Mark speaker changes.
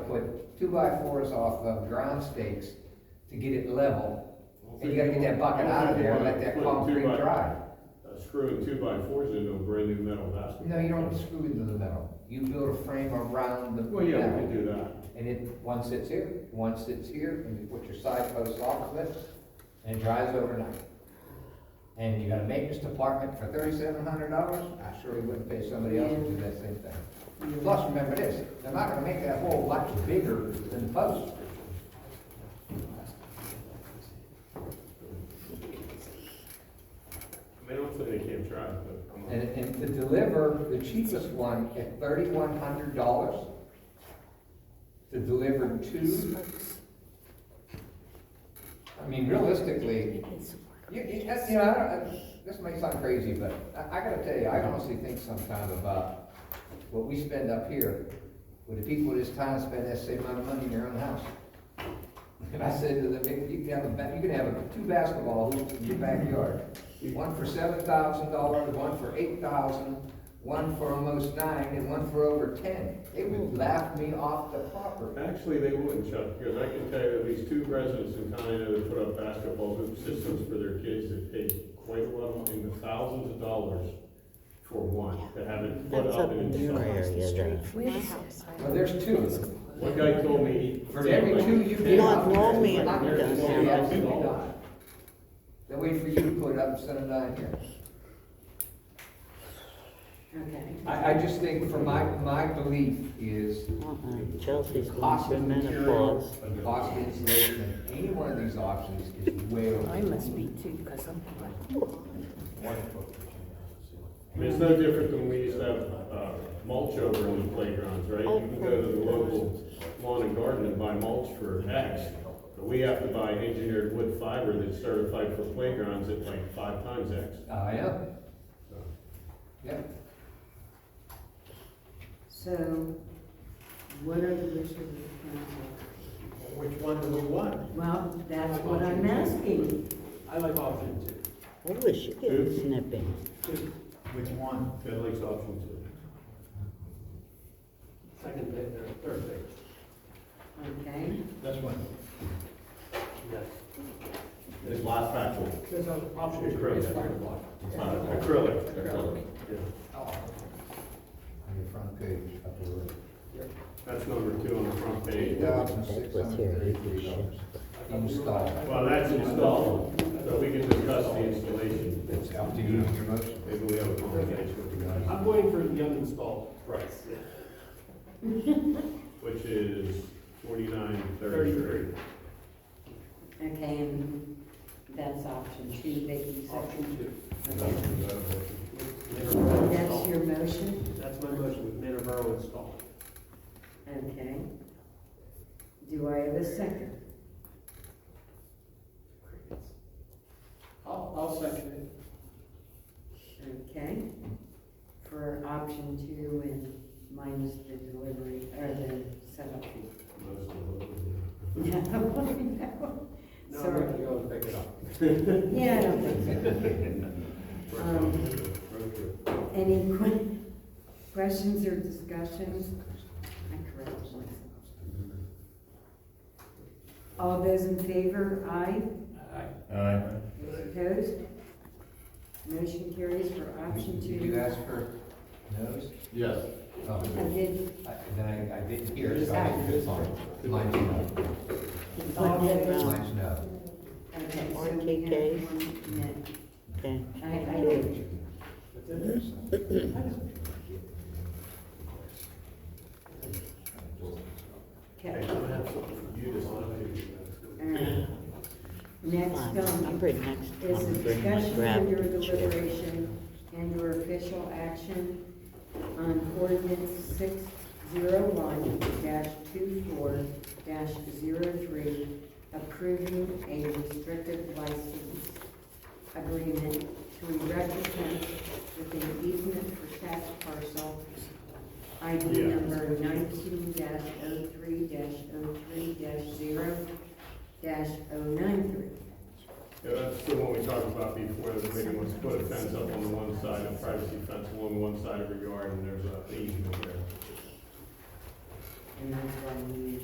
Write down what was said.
Speaker 1: two by fours off of ground stakes to get it level. And you gotta get that bucket out of there and let that concrete dry.
Speaker 2: Screwing two by fours into a brand new metal basket.
Speaker 1: No, you don't screw into the metal. You build a frame around the
Speaker 2: Well, yeah, we
Speaker 1: metal.
Speaker 2: could do that.
Speaker 1: And it, one sits here, one sits here, and you put your side posts off of it, and it dries overnight. And you got a maintenance department for thirty-seven hundred dollars? I surely wouldn't pay somebody else to do that same thing. Plus, remember this, they're not gonna make that hole much bigger than the post.
Speaker 2: I mean, don't say they can't try, but. come on.
Speaker 1: And, and to deliver the cheapest one at thirty-one hundred dollars, to deliver two. I mean, realistically, you, you, that's, you know, I don't, I- this may sound crazy, but I, I gotta tell you, I honestly think sometimes about what we spend up here, with the people of this town spend that same amount of money in their own house. And I said to them, "If you can have a, ba- you can have a- two basketball hoops in your backyard. One for seven thousand dollars, one for eight thousand, one for almost nine, and one for over ten. They would laugh me off the property.
Speaker 2: Actually, they wouldn't, Chuck, because I can tell you at least two residents in Conneaut that put up basketball hoop systems for their kids that paid quite a lot, in the thousands of dollars for one, to have it put
Speaker 3: That's
Speaker 2: up
Speaker 3: up
Speaker 2: and
Speaker 3: in your
Speaker 2: installed.
Speaker 3: area, that.
Speaker 4: Where is this?
Speaker 1: Well, there's two.
Speaker 2: One guy told me.
Speaker 1: For every two you get.
Speaker 3: Not normally it
Speaker 1: Not-
Speaker 3: does.
Speaker 1: Absolutely not. They'll wait for you to put it up instead of nine here.
Speaker 4: Okay.
Speaker 1: I, I just think for my, my belief is
Speaker 3: Uh-uh, Chelsea's going
Speaker 1: cost
Speaker 3: through
Speaker 1: of materials,
Speaker 3: menopause.
Speaker 1: and cost of insulation, and any one of these options is way over.
Speaker 4: I must be too, because I'm.
Speaker 2: I mean, it's no different than we used to have, uh, mulch over in the playgrounds, right? You can go to the local lawn and garden and buy mulch for X. But we have to buy engineered wood fiber that's certified for playgrounds at like five times X.
Speaker 1: I am,
Speaker 2: So,
Speaker 1: Uh, yeah.
Speaker 4: So, what are the wishes of the
Speaker 5: Which one do we want?
Speaker 4: council? Well, that's what I'm asking.
Speaker 5: I like option two.
Speaker 3: I wish you could snipping.
Speaker 5: Which one?
Speaker 2: Ted likes option two.
Speaker 5: Second page, or third page?
Speaker 4: Okay,
Speaker 5: This one. Yes.
Speaker 2: It's last factual.
Speaker 5: There's an option two.
Speaker 2: Acrylic.
Speaker 5: It's fiberglass.
Speaker 2: It's not acrylic. Acrylic. Yeah.
Speaker 1: Oh. On your front page, up the road.
Speaker 2: That's number two on the front
Speaker 1: Eight
Speaker 2: page.
Speaker 1: thousand
Speaker 3: That
Speaker 1: six
Speaker 3: was
Speaker 1: hundred
Speaker 3: here,
Speaker 1: thirty-three dollars. Installed.
Speaker 2: Well, that's installed, so we can discuss the installation.
Speaker 1: It's up to you on your motion.
Speaker 2: Maybe we have a conversation with the guys.
Speaker 5: I'm going for the uninstalled price.
Speaker 2: Which is forty-nine
Speaker 5: Thirty-three.
Speaker 2: thirty-three.
Speaker 4: okay, and that's option two that you said.
Speaker 5: Option two.
Speaker 4: Okay.
Speaker 5: Minerboro
Speaker 4: That's
Speaker 5: installed.
Speaker 4: your motion,
Speaker 5: That's my motion with Minerboro installed.
Speaker 4: okay. Do I have a second?
Speaker 5: I'll, I'll second it.
Speaker 4: Okay, for option two and minus the delivery, or the setup fee. Yeah, I know.
Speaker 5: No, I'm gonna
Speaker 4: Sorry,
Speaker 5: go and pick it up.
Speaker 4: yeah, I don't think so. Any que- questions or discussions? I correct myself. All those in favor, aye.
Speaker 2: Aye.
Speaker 4: Those opposed? Motion carries for option
Speaker 1: Did you
Speaker 4: two.
Speaker 1: ask for no's?
Speaker 2: Yes.
Speaker 1: Oh,
Speaker 4: I did,
Speaker 1: I- Then I, I didn't hear, so I didn't do it. Mine's no.
Speaker 4: all those,
Speaker 1: Mine's no.
Speaker 4: okay, so
Speaker 3: Or
Speaker 4: we
Speaker 3: KK.
Speaker 4: have one,
Speaker 3: Okay.
Speaker 4: no, I, I did. Okay. Alright. Next
Speaker 3: I'm
Speaker 4: um,
Speaker 3: pretty next time.
Speaker 4: is a
Speaker 3: I'm pretty much
Speaker 4: discussion
Speaker 3: grabbed
Speaker 4: and your
Speaker 3: the chair.
Speaker 4: deliberation and your official action on ordinance six zero one dash two four dash zero three, approving a restricted license agreement to erect a fence with an easement for tax parcel ID
Speaker 2: Yeah.
Speaker 4: number nineteen dash oh three dash oh three dash zero dash oh nine three.
Speaker 2: Yeah, that's the one we talked about before, that maybe wants to put a fence up on the one side, a privacy fence along one side of your yard, and there's a easement there.
Speaker 4: And that's why we